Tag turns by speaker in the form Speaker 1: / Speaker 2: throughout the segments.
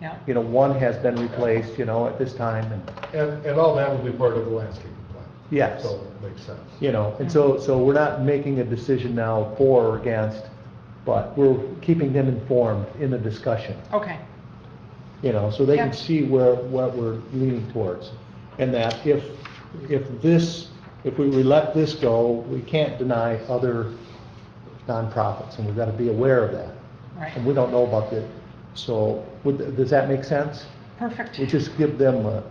Speaker 1: Yeah.
Speaker 2: you know, one has been replaced, you know, at this time, and,
Speaker 3: And, and all that will be part of the landscaping plan.
Speaker 2: Yes.
Speaker 3: So it makes sense.
Speaker 2: you know, and so, so we're not making a decision now for or against, but we're keeping them informed in the discussion,
Speaker 1: Okay,
Speaker 2: you know, so they
Speaker 1: Yeah.
Speaker 2: can see where, what we're leaning towards. And that if, if this, if we let this go, we can't deny other nonprofits, and we've got to be aware of that. And we
Speaker 1: right.
Speaker 2: don't know about that, so, would, does that make sense?
Speaker 1: Perfect.
Speaker 2: We just give them a,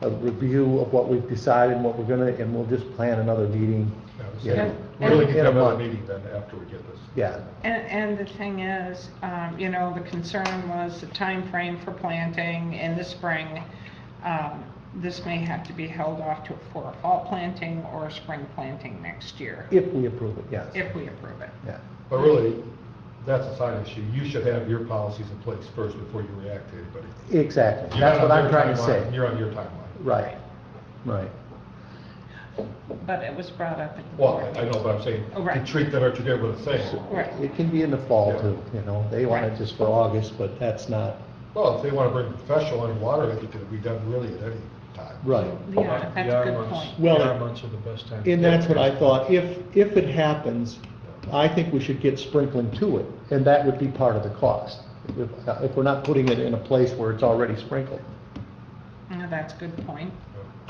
Speaker 2: a review of what we've decided, and what we're gonna, and we'll just plan another meeting.
Speaker 3: I would
Speaker 2: you
Speaker 3: say
Speaker 2: know,
Speaker 3: we Really
Speaker 2: in
Speaker 3: can
Speaker 2: a
Speaker 3: come out
Speaker 2: month.
Speaker 3: of meeting then after we get this.
Speaker 2: Yeah,
Speaker 1: And, and the thing is, um, you know, the concern was the time frame for planting in the spring. Um, This may have to be held off to, for a fall planting or a spring planting next year,
Speaker 2: if we approve it, yes.
Speaker 1: if we approve it.
Speaker 2: Yeah,
Speaker 3: But really, that's a side issue. You should have your policies in place first before you react to anybody.
Speaker 2: exactly,
Speaker 3: You're
Speaker 2: that's
Speaker 3: not
Speaker 2: what
Speaker 3: on
Speaker 2: I'm
Speaker 3: their
Speaker 2: trying to
Speaker 3: timeline.
Speaker 2: say.
Speaker 3: You're on your timeline.
Speaker 2: Right, right.
Speaker 1: But it was brought up at the
Speaker 3: Well,
Speaker 1: board.
Speaker 3: I I know, but I'm saying,
Speaker 1: Oh, right.
Speaker 3: to treat them or to them with the same.
Speaker 1: Right.
Speaker 2: It can be in the fall
Speaker 3: Yeah.
Speaker 2: too, you know, they want
Speaker 1: Right.
Speaker 2: it just for August, but that's not,
Speaker 3: Well, if they want to bring a professional in water, it could be done really at any time.
Speaker 2: right.
Speaker 1: Yeah, that's a
Speaker 4: The
Speaker 1: good
Speaker 4: R months-
Speaker 1: point.
Speaker 2: Well,
Speaker 4: The R
Speaker 2: it-
Speaker 4: months are the best time.
Speaker 2: And that's what I thought, if, if it happens, I think we should get sprinkling to it, and that would be part of the cost. If, if we're not putting it in a place where it's already sprinkled,
Speaker 1: Yeah, That's a good point.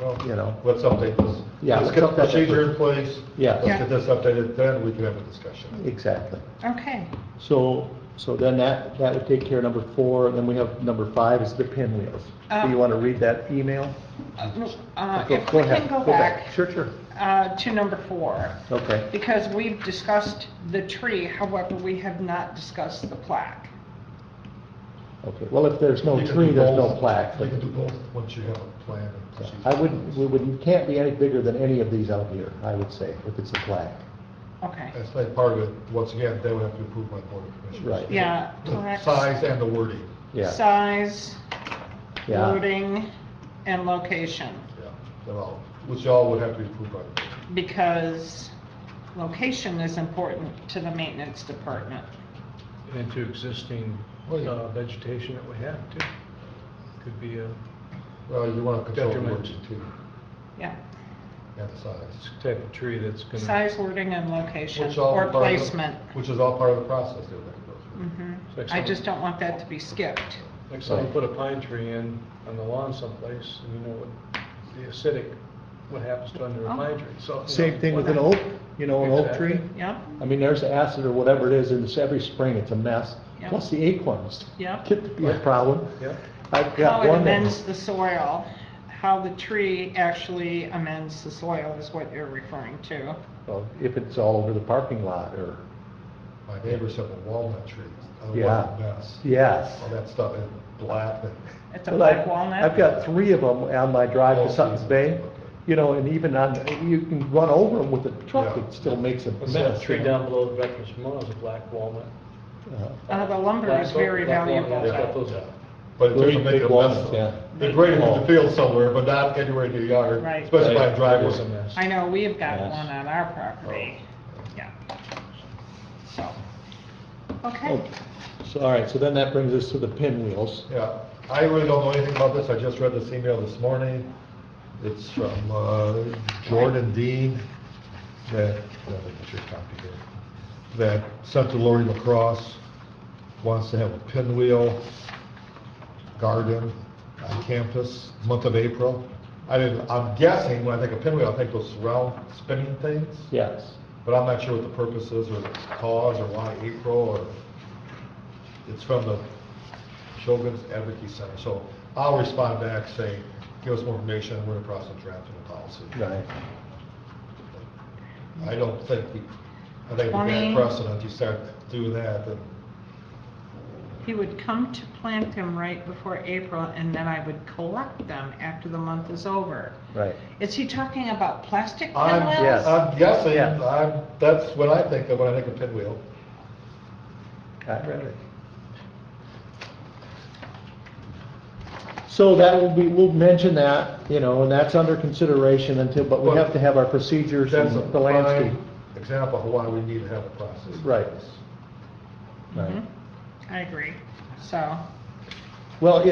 Speaker 3: Well,
Speaker 2: You know.
Speaker 3: Let's update this.
Speaker 2: Yeah,
Speaker 3: Let's
Speaker 2: let's
Speaker 3: get a
Speaker 2: update that
Speaker 3: procedure
Speaker 2: first.
Speaker 3: in place.
Speaker 2: Yeah.
Speaker 3: Let's
Speaker 1: Yeah.
Speaker 3: get this updated, then we can have a discussion.
Speaker 2: exactly.
Speaker 1: Okay,
Speaker 2: So, so then that, that would take care of number four, and then we have number five is the pinwheels. Do
Speaker 1: Um,
Speaker 2: you want to read that email?
Speaker 1: uh,
Speaker 2: Go-
Speaker 1: if we
Speaker 2: ahead,
Speaker 1: can go back
Speaker 2: Sure, sure,
Speaker 1: uh, to number four.
Speaker 2: okay,
Speaker 1: Because we've discussed the tree, however, we have not discussed the plaque.
Speaker 2: okay. Well, if there's no
Speaker 3: You can
Speaker 2: tree,
Speaker 3: do
Speaker 2: there's no
Speaker 3: both.
Speaker 2: plaque.
Speaker 3: You can do both, once you have a plan and
Speaker 2: Yeah,
Speaker 3: procedure.
Speaker 2: I wouldn't, we wouldn't, can't be any bigger than any of these out here, I would say, if it's a plaque.
Speaker 1: Okay,
Speaker 3: That's like part of it, once again, they would have to approve by the board of commissioners.
Speaker 2: Right.
Speaker 1: yeah.
Speaker 3: The
Speaker 1: plaques,
Speaker 3: size and the wording,
Speaker 2: Yeah,
Speaker 1: Size,
Speaker 2: yeah,
Speaker 1: loading, and location,
Speaker 3: yeah, they're all, which all would have to be approved by the board.
Speaker 1: because location is important to the maintenance department.
Speaker 4: And to existing
Speaker 3: Oh, yeah.
Speaker 4: uh, vegetation that we have too. Could be a
Speaker 3: Well, you want to control the
Speaker 4: Detriment.
Speaker 3: wording too,
Speaker 1: Yeah,
Speaker 3: and the size.
Speaker 4: type of tree that's gonna.
Speaker 1: size, wording, and location,
Speaker 3: Which all
Speaker 1: or
Speaker 3: part of the-
Speaker 1: placement.
Speaker 3: Which is all part of the process they're going to go through.
Speaker 1: Mhm.
Speaker 4: So if
Speaker 1: I just
Speaker 4: someone-
Speaker 1: don't want that to be skipped.
Speaker 4: Like someone put a pine tree in on the lawn someplace, and you know what, the acidic, what happens to under a pine tree, so. you know,
Speaker 2: same thing with an
Speaker 4: why not?
Speaker 2: oak, you know, an oak tree.
Speaker 4: Exactly.
Speaker 1: Yep,
Speaker 2: I mean, there's acid or whatever it is, and it's every spring, it's a mess.
Speaker 1: Yeah.
Speaker 2: Plus the acorns
Speaker 1: yep.
Speaker 2: get to be a problem.
Speaker 4: Yeah,
Speaker 2: I've
Speaker 1: how
Speaker 2: got
Speaker 1: it
Speaker 2: one that-
Speaker 1: amends the soil, how the tree actually amends the soil is what you're referring to.
Speaker 2: Well, if it's all over the parking lot or,
Speaker 1: Mm-hmm.
Speaker 3: My neighbors have a walnut tree, a
Speaker 2: Yeah.
Speaker 3: walnut mess,
Speaker 2: yes.
Speaker 3: all that stuff is black and.
Speaker 1: It's a
Speaker 2: Well, I-
Speaker 1: black walnut.
Speaker 2: I've got three of them on my drive
Speaker 3: Oh,
Speaker 2: to Sutton's Bay,
Speaker 3: okay.
Speaker 2: you know, and even on, you can run over them with a truck,
Speaker 3: Yeah.
Speaker 2: it still makes a
Speaker 4: What's that
Speaker 2: mess.
Speaker 4: tree down below the Veterans Memorial is a black walnut.
Speaker 2: Uh,
Speaker 1: Uh, the lumber
Speaker 4: Black
Speaker 1: is
Speaker 4: oak,
Speaker 1: very
Speaker 4: black walnut,
Speaker 1: valuable.
Speaker 4: it's got those-
Speaker 3: Yeah. But it
Speaker 2: Those
Speaker 3: doesn't
Speaker 2: big
Speaker 3: make a
Speaker 2: walnuts,
Speaker 3: mess.
Speaker 2: yeah.
Speaker 3: They're great in the field somewhere, but not anywhere near your yard,
Speaker 1: Right.
Speaker 3: especially by a
Speaker 4: Right,
Speaker 3: driveway.
Speaker 4: it is a mess.
Speaker 1: I know, we have got
Speaker 2: Yes.
Speaker 1: one on our property.
Speaker 4: Oh.
Speaker 1: Yeah. So, okay,
Speaker 2: oh, So, all right, so then that brings us to the pinwheels.
Speaker 3: Yeah, I really don't know anything about this, I just read this email this morning. It's from uh, Jordan Dean, that, that was your copy here, that sent to Lori Lacrosse, wants to have a pinwheel garden on campus, month of April. I didn't, I'm guessing, when I think of pinwheel, I think those round spinning things,
Speaker 2: Yes,
Speaker 3: but I'm not sure what the purpose is, or the cause, or why April, or, it's from the Shogun's Advocacy Center, so I'll respond back, say, give us more information, we're in the process of drafting a policy.
Speaker 2: right.
Speaker 3: I don't think, we- I think we
Speaker 1: Twenty.
Speaker 3: got precedent, you start doing that, then,
Speaker 1: he would come to plant them right before April, and then I would collect them after the month is over.
Speaker 2: Right.
Speaker 1: Is he talking about plastic
Speaker 3: I'm,
Speaker 2: Yes.
Speaker 1: pinwheels?
Speaker 3: I'm guessing,
Speaker 2: Yes.
Speaker 3: I'm, that's what I think of when I think of pinwheel.
Speaker 2: I read it. So that will be, we'll mention that, you know, and that's under consideration until, but we have to have our procedures and
Speaker 3: That's a
Speaker 2: the landscape.
Speaker 3: prime example of why we need to have a process.
Speaker 2: Right. Right.
Speaker 1: Mm-hmm. Mhm. I agree, so.
Speaker 2: Well,